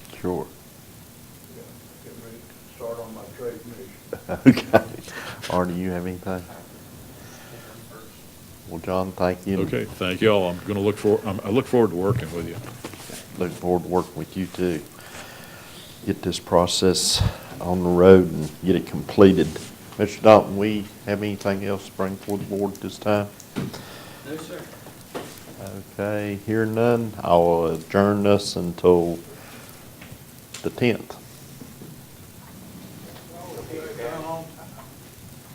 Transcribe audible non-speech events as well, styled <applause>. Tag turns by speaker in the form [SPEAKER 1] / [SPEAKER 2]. [SPEAKER 1] Sure. <laughs>
[SPEAKER 2] Yeah, Get ready to start on my trade mission.
[SPEAKER 1] Okay. Arnie, you have anything? Well, John, thank you.
[SPEAKER 3] Okay, thank you all. I'm going to look for, I'm- I look forward to working with you.
[SPEAKER 1] Look forward to working with you too. Get this process on the road and get it completed. Mr. Dalton, we have anything else to bring forward the board at this time?
[SPEAKER 4] No, sir.
[SPEAKER 1] Okay, hearing none, I'll adjourn us until the tenth.